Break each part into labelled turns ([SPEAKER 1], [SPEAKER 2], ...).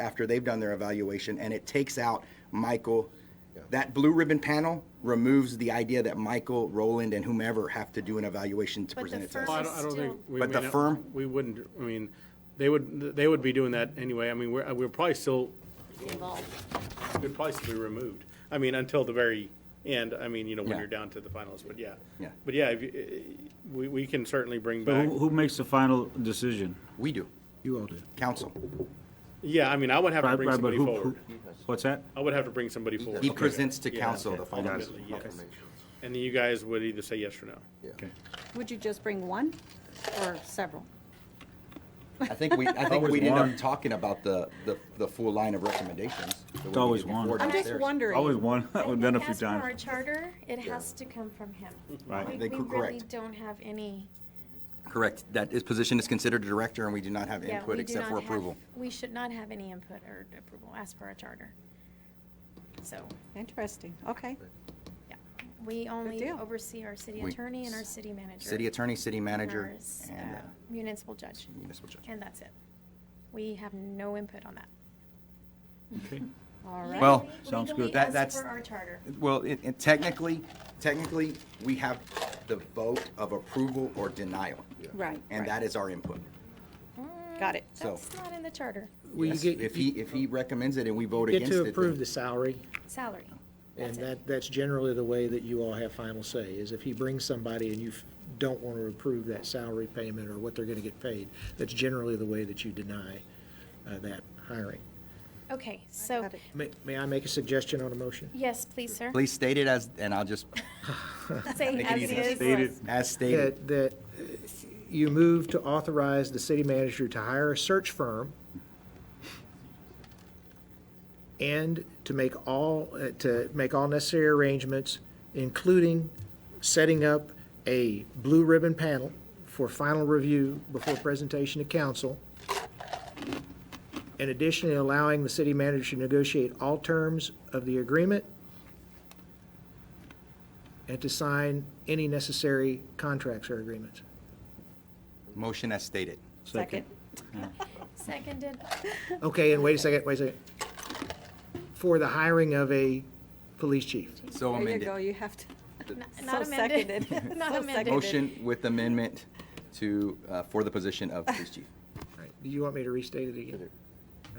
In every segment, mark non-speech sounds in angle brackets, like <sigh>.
[SPEAKER 1] after they've done their evaluation, and it takes out Michael. That blue ribbon panel removes the idea that Michael, Roland, and whomever have to do an evaluation to
[SPEAKER 2] But the
[SPEAKER 1] present it to us.
[SPEAKER 2] firm
[SPEAKER 3] Well, I
[SPEAKER 2] is
[SPEAKER 3] don't, I don't think.
[SPEAKER 2] still-
[SPEAKER 3] we-
[SPEAKER 1] But
[SPEAKER 3] we
[SPEAKER 1] the
[SPEAKER 3] don't-
[SPEAKER 1] firm-
[SPEAKER 3] We wouldn't, I mean, they would, they would be doing that anyway. I mean, we're, we're probably still,
[SPEAKER 2] involved.
[SPEAKER 3] we'd probably still be removed. I mean, until the very end, I mean, you know, when
[SPEAKER 1] Yeah.
[SPEAKER 3] you're down to the finals, but yeah.
[SPEAKER 1] Yeah.
[SPEAKER 3] But yeah, if you- eh, we, we can certainly bring
[SPEAKER 4] So
[SPEAKER 3] back,
[SPEAKER 4] who, who makes the final decision?
[SPEAKER 1] We do,
[SPEAKER 4] You all do.
[SPEAKER 1] council.
[SPEAKER 3] yeah, I mean, I would have to
[SPEAKER 4] Right,
[SPEAKER 3] bring
[SPEAKER 4] right, but
[SPEAKER 3] somebody
[SPEAKER 4] who, who,
[SPEAKER 3] forward.
[SPEAKER 4] what's that?
[SPEAKER 3] I would have to bring somebody forward.
[SPEAKER 1] He presents to
[SPEAKER 3] Yeah,
[SPEAKER 1] council
[SPEAKER 3] okay.
[SPEAKER 1] the final
[SPEAKER 3] Ultimately,
[SPEAKER 1] decision.
[SPEAKER 3] yes. And then you guys would either say yes or no.
[SPEAKER 2] Would you just bring one or several?
[SPEAKER 1] I think we, I think
[SPEAKER 4] Always
[SPEAKER 1] we'd end up
[SPEAKER 4] one.
[SPEAKER 1] talking about the, the, the full line of recommendations. that we
[SPEAKER 4] It's always
[SPEAKER 1] needed before
[SPEAKER 4] one.
[SPEAKER 2] I'm just
[SPEAKER 1] downstairs.
[SPEAKER 2] wondering.
[SPEAKER 4] Always one, <laughs> we've done a few
[SPEAKER 5] As per our
[SPEAKER 4] times.
[SPEAKER 5] charter, it has to come from him.
[SPEAKER 4] Right.
[SPEAKER 5] We-
[SPEAKER 1] They
[SPEAKER 5] We
[SPEAKER 1] could-
[SPEAKER 5] really
[SPEAKER 1] correct.
[SPEAKER 5] don't have any.
[SPEAKER 1] Correct. That is, position is considered a director and we do not have
[SPEAKER 5] yeah,
[SPEAKER 1] input
[SPEAKER 5] we do
[SPEAKER 1] except for
[SPEAKER 5] not have-
[SPEAKER 1] approval.
[SPEAKER 5] We should not have any input or approval as per our charter. So,
[SPEAKER 2] Interesting, okay.
[SPEAKER 5] yeah, we only
[SPEAKER 2] deal.
[SPEAKER 5] oversee our city
[SPEAKER 1] We-
[SPEAKER 5] attorney and our city manager.
[SPEAKER 1] City attorney, city
[SPEAKER 5] and
[SPEAKER 1] manager,
[SPEAKER 5] our s-
[SPEAKER 1] and
[SPEAKER 5] uh,
[SPEAKER 1] uh,
[SPEAKER 5] Municipal judge,
[SPEAKER 1] municipal judge.
[SPEAKER 5] and that's it. We have no input on that.
[SPEAKER 4] Okay.
[SPEAKER 2] All right.
[SPEAKER 1] Well,
[SPEAKER 5] Legally-
[SPEAKER 4] sounds good.
[SPEAKER 5] legally,
[SPEAKER 1] That-
[SPEAKER 5] as
[SPEAKER 1] that's-
[SPEAKER 5] per our charter.
[SPEAKER 1] Well, it, it technically, technically, we have the vote of approval or denial.
[SPEAKER 2] Right,
[SPEAKER 1] And
[SPEAKER 2] right.
[SPEAKER 1] that is our input.
[SPEAKER 2] Got it.
[SPEAKER 1] So-
[SPEAKER 5] That's not in the charter,
[SPEAKER 6] Well, you
[SPEAKER 1] Yes,
[SPEAKER 6] get,
[SPEAKER 1] If he, if he recommends it and we vote
[SPEAKER 6] you get
[SPEAKER 1] against it.
[SPEAKER 6] to
[SPEAKER 1] then-
[SPEAKER 6] approve the salary,
[SPEAKER 5] salary.
[SPEAKER 6] and
[SPEAKER 5] That's it.
[SPEAKER 6] that, that's generally the way that you all have final say, is if he brings somebody and you f- don't want to approve that salary payment or what they're going to get paid, that's generally the way that you deny uh, that hiring.
[SPEAKER 5] Okay, so,
[SPEAKER 2] Got it.
[SPEAKER 6] May, may I make a suggestion on a motion?
[SPEAKER 5] yes, please, sir.
[SPEAKER 1] Please state it as, and I'll just,
[SPEAKER 5] Say
[SPEAKER 1] Make it
[SPEAKER 5] as
[SPEAKER 1] easy.
[SPEAKER 5] it
[SPEAKER 4] Stated.
[SPEAKER 5] is.
[SPEAKER 1] as stated.
[SPEAKER 6] That, that uh, you move to authorize the city manager to hire a search firm and to make all, uh, to make all necessary arrangements, including setting up a blue ribbon panel for final review before presentation to council. In addition, allowing the city manager to negotiate all terms of the agreement and to sign any necessary contracts or agreements.
[SPEAKER 1] Motion as stated.
[SPEAKER 2] Second. <laughs>
[SPEAKER 5] Seconded.
[SPEAKER 6] Okay, and wait a second, wait a second. For the hiring of a police chief.
[SPEAKER 1] So
[SPEAKER 2] There you
[SPEAKER 1] amended.
[SPEAKER 2] go, you have to,
[SPEAKER 5] N-
[SPEAKER 2] so
[SPEAKER 5] Not amended. <laughs>
[SPEAKER 2] seconded. So
[SPEAKER 5] Not
[SPEAKER 2] seconded.
[SPEAKER 5] amended.
[SPEAKER 1] Motion with amendment to, uh, for the position of police chief.
[SPEAKER 6] Right, Do you want me to restate it again? No,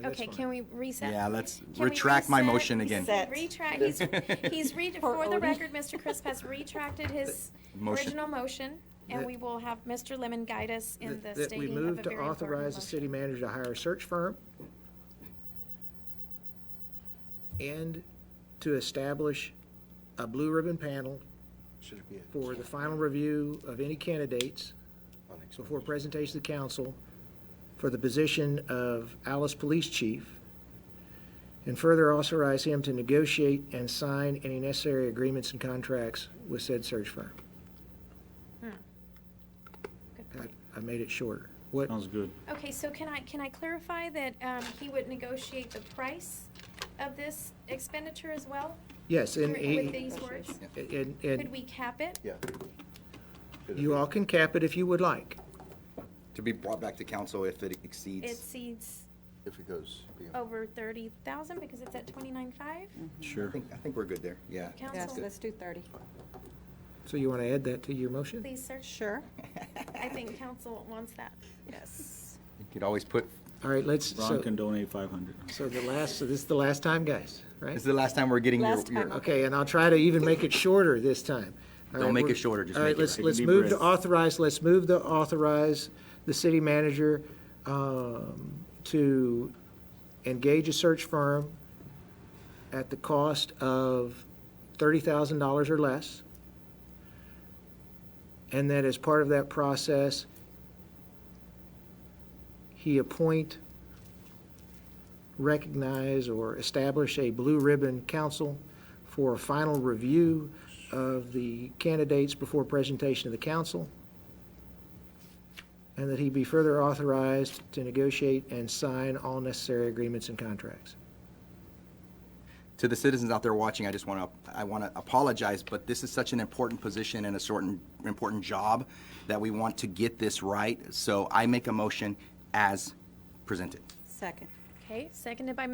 [SPEAKER 6] that's
[SPEAKER 5] Okay,
[SPEAKER 6] fine.
[SPEAKER 5] can we reset?
[SPEAKER 1] Yeah, let's
[SPEAKER 5] Can we
[SPEAKER 1] retract my
[SPEAKER 5] reset?
[SPEAKER 1] motion again.
[SPEAKER 2] Reset.
[SPEAKER 5] Retract, he's,
[SPEAKER 1] <laughs>
[SPEAKER 5] he's re,
[SPEAKER 2] Poor
[SPEAKER 5] for the
[SPEAKER 2] Odie.
[SPEAKER 5] record, Mr. Crisp has retracted his
[SPEAKER 1] Motion.
[SPEAKER 5] original motion, and we will have Mr. Lemon guide us in the
[SPEAKER 6] That- That we
[SPEAKER 5] stating of
[SPEAKER 6] move
[SPEAKER 5] a
[SPEAKER 6] to
[SPEAKER 5] very
[SPEAKER 6] authorize
[SPEAKER 5] important
[SPEAKER 6] the
[SPEAKER 5] motion.
[SPEAKER 6] city manager to hire a search firm and to establish a blue ribbon panel for the final review of any candidates before presentation to council for the position of Alice Police Chief. And further authorize him to negotiate and sign any necessary agreements and contracts with said search firm.
[SPEAKER 5] Hmm.
[SPEAKER 6] I, I made it shorter. What,
[SPEAKER 4] Sounds good.
[SPEAKER 5] Okay, so can I, can I clarify that, um, he would negotiate the price of this expenditure as well?
[SPEAKER 6] yes, and
[SPEAKER 5] With- With
[SPEAKER 6] he,
[SPEAKER 5] these words?
[SPEAKER 6] and,
[SPEAKER 5] Could
[SPEAKER 6] and
[SPEAKER 5] we cap it?
[SPEAKER 6] you all can cap it if you would like.
[SPEAKER 1] To be brought back to council if it
[SPEAKER 5] It
[SPEAKER 1] exceeds,
[SPEAKER 5] seeds
[SPEAKER 7] if it goes beyond.
[SPEAKER 5] over thirty thousand, because it's at twenty-nine-five,
[SPEAKER 1] I
[SPEAKER 4] Sure.
[SPEAKER 1] think, I think we're good there, yeah.
[SPEAKER 2] Yes,
[SPEAKER 5] council,
[SPEAKER 2] let's do 30.
[SPEAKER 6] So you want to add that to your motion?
[SPEAKER 5] please, sir.
[SPEAKER 2] Sure,
[SPEAKER 5] I think council wants that.
[SPEAKER 2] yes.
[SPEAKER 1] You could always put,
[SPEAKER 6] All right, let's,
[SPEAKER 4] Ron
[SPEAKER 6] so,
[SPEAKER 4] can donate five hundred.
[SPEAKER 6] so the last, so this is the last time, guys,
[SPEAKER 1] this
[SPEAKER 6] right?
[SPEAKER 1] is the last time we're getting your,
[SPEAKER 2] Last time.
[SPEAKER 1] your,
[SPEAKER 6] Okay, and I'll try to even make it shorter this time. All
[SPEAKER 1] Don't
[SPEAKER 6] right,
[SPEAKER 1] make it
[SPEAKER 6] we're-
[SPEAKER 1] shorter, just
[SPEAKER 6] All right,
[SPEAKER 1] make it
[SPEAKER 6] let's,
[SPEAKER 1] right.
[SPEAKER 6] let's
[SPEAKER 4] Take a deep
[SPEAKER 6] move to
[SPEAKER 4] breath.
[SPEAKER 6] authorize, let's move to authorize the city manager um, to engage a search firm at the cost of $30,000 or less. And that as part of that process, he appoint, recognize, or establish a blue ribbon council for a final review of the candidates before presentation to the council, and that he be further authorized to negotiate and sign all necessary agreements and contracts.
[SPEAKER 1] to the citizens out there watching, I just want to, I want to apologize, but this is such an important position and a certain important job that we want to get this right. So I make a motion as presented.
[SPEAKER 2] Second.
[SPEAKER 5] Okay, seconded by